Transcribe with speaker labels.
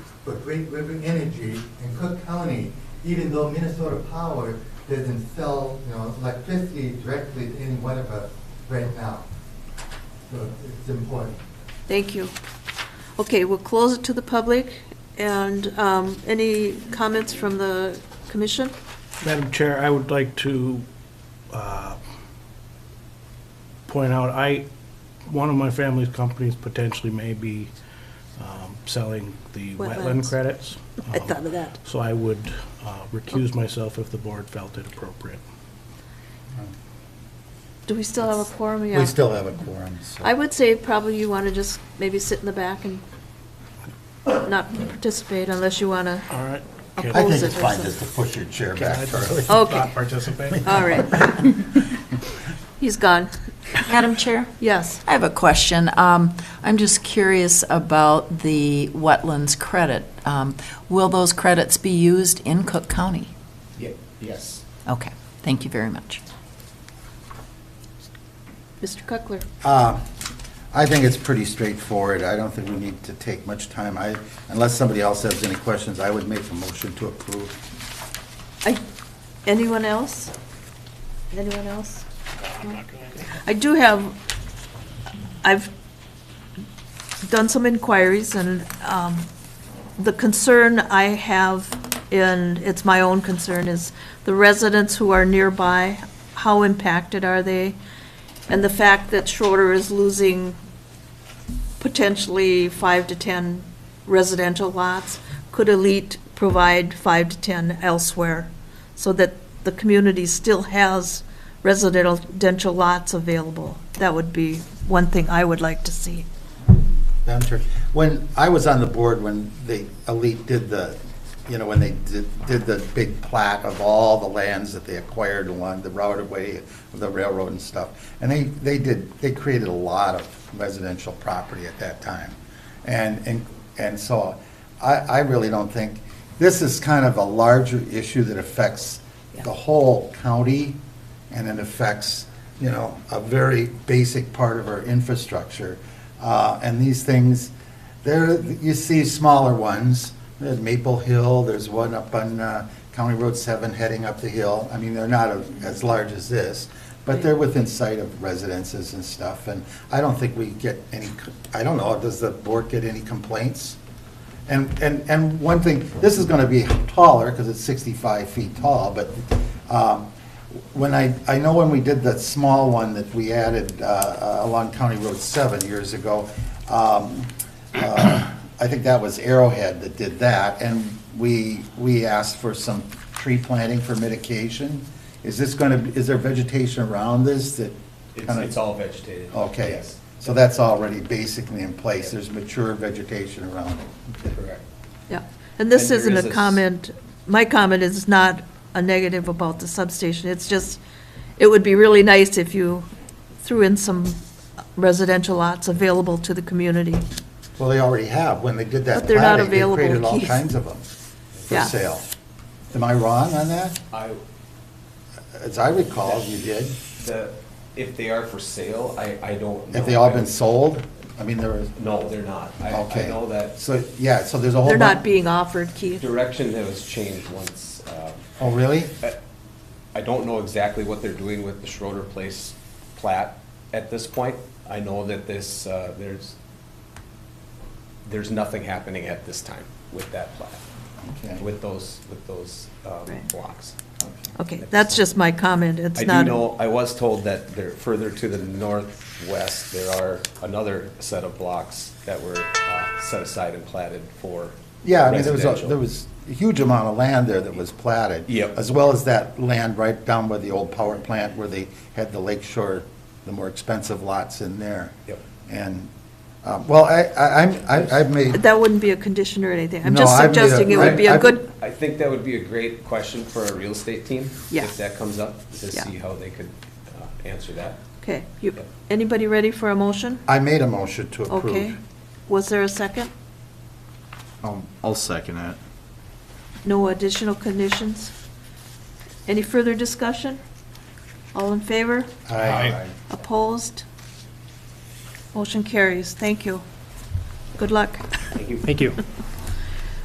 Speaker 1: for Great River Energy in Cook County, even though Minnesota Power doesn't sell, you know, electricity directly to any one of us right now. So it's important.
Speaker 2: Thank you. Okay, we'll close it to the public, and um, any comments from the commission?
Speaker 3: Madam Chair, I would like to uh, point out, I, one of my family's companies potentially may be um, selling the
Speaker 2: Wetlands.
Speaker 3: wetland credits.
Speaker 2: I
Speaker 3: Um,
Speaker 2: thought of that.
Speaker 3: So I would uh, recuse myself if the board felt it appropriate.
Speaker 2: Do we still have a quorum? Yeah.
Speaker 4: We still have a quorum, so.
Speaker 2: I would say probably you want to just maybe sit in the back and not participate unless you want to.
Speaker 3: All right.
Speaker 2: Can-
Speaker 4: I
Speaker 2: Oppose
Speaker 4: think
Speaker 2: it
Speaker 4: it's
Speaker 2: or
Speaker 4: fine
Speaker 2: something.
Speaker 4: just to push your chair
Speaker 3: Can I
Speaker 4: back, Charlie.
Speaker 3: just not
Speaker 2: Okay.
Speaker 3: participate?
Speaker 2: All right. He's gone.
Speaker 5: Madam Chair,
Speaker 2: Yes.
Speaker 5: I have a question. Um, I'm just curious about the wetlands credit. Um, Will those credits be used in Cook County?
Speaker 6: Yes.
Speaker 5: Okay, thank you very much.
Speaker 2: Mr. Cuckler.
Speaker 4: Uh, I think it's pretty straightforward. I don't think we need to take much time. I, unless somebody else has any questions, I would make a motion to approve.
Speaker 2: I- Anyone else? Anyone else? I do have, I've done some inquiries, and um, the concern I have, and it's my own concern, is the residents who are nearby, how impacted are they? And the fact that Schroeder is losing potentially five to 10 residential lots, could Elite provide five to 10 elsewhere, so that the community still has residential lots available? That would be one thing I would like to see.
Speaker 4: Madam Chair, when, I was on the board when the elite did the, you know, when they did, did the big plat of all the lands that they acquired along the route of way of the railroad and stuff. And they, they did, they created a lot of residential property at that time. And, and, and so I, I really don't think, this is kind of a larger issue that affects the whole county and it affects, you know, a very basic part of our infrastructure. Uh, And these things, there, you see smaller ones, there's Maple Hill, there's one up on uh, County Road 7 heading up the hill. I mean, they're not a- as large as this, but they're within sight of residences and stuff. And I don't think we get any, c- I don't know, does the board get any complaints? And, and, and one thing, this is gonna be taller, because it's 65 feet tall, but um, when I, I know when we did that small one that we added uh, uh, along County Road 7 years ago, um, uh, I think that was Arrowhead that did that, and we, we asked for some tree planting for mitigation. Is this gonna, is there vegetation around this that?
Speaker 6: It's,
Speaker 4: kinda-
Speaker 6: it's all vegetated.
Speaker 4: Okay,
Speaker 6: Yes,
Speaker 4: so that's already basically in place, there's mature vegetation around it.
Speaker 6: correct.
Speaker 2: Yeah, and this
Speaker 6: And there
Speaker 2: isn't
Speaker 6: is a
Speaker 2: a
Speaker 6: s-
Speaker 2: comment, my comment is not a negative about the substation, it's just, it would be really nice if you threw in some residential lots available to the community.
Speaker 4: Well, they already have, when they did that
Speaker 2: But they're not
Speaker 4: plating, they
Speaker 2: available,
Speaker 4: created all
Speaker 2: Keith.
Speaker 4: kinds of them for
Speaker 2: Yeah.
Speaker 4: sale. Am I wrong on that?
Speaker 6: I,
Speaker 4: As I recall, you did.
Speaker 6: the, if they are for sale, I, I don't know.
Speaker 4: Have they all been sold? I mean, there was,
Speaker 6: No, they're not. I,
Speaker 4: okay.
Speaker 6: I know that
Speaker 4: So, yeah, so there's a whole.
Speaker 2: They're not
Speaker 4: bu-
Speaker 2: being offered, Keith.
Speaker 6: direction that was changed once, um,
Speaker 4: Oh, really?
Speaker 6: I don't know exactly what they're doing with the Schroeder Place plat at this point. I know that this, uh, there's, there's nothing happening at this time with that plat,
Speaker 4: Okay.
Speaker 6: with those, with those um,
Speaker 2: Right.
Speaker 6: blocks.
Speaker 2: Okay, that's just my comment, it's
Speaker 6: I
Speaker 2: not.
Speaker 6: do know, I was told that there, further to the northwest, there are another set of blocks that were uh, set aside and platted for
Speaker 4: Yeah, I mean, there was, a-
Speaker 6: residential.
Speaker 4: there was a huge amount of land there that was platted.
Speaker 6: Yep.
Speaker 4: As well as that land right down by the old power plant where they had the lake shore, the more expensive lots in there.
Speaker 6: Yep.
Speaker 4: And, um, well, I, I, I'm- I- I've made,
Speaker 2: That wouldn't be a condition or anything, I'm
Speaker 4: No,
Speaker 2: just
Speaker 4: I've made a-
Speaker 2: suggesting it would be a
Speaker 4: I've-
Speaker 2: good,
Speaker 6: I think that would be a great question for our real estate team.
Speaker 2: Yeah.
Speaker 6: If that comes up, to
Speaker 2: Yeah.
Speaker 6: see how they could uh, answer that.
Speaker 2: okay, you, anybody ready for a motion?
Speaker 4: I made a motion to approve. Um,
Speaker 2: Okay, was there a second?
Speaker 7: I'll, I'll second it.
Speaker 2: No additional conditions? Any further discussion? All in favor?
Speaker 4: Aye.
Speaker 2: Opposed? Motion carries. Thank you. Good luck.
Speaker 3: Thank you.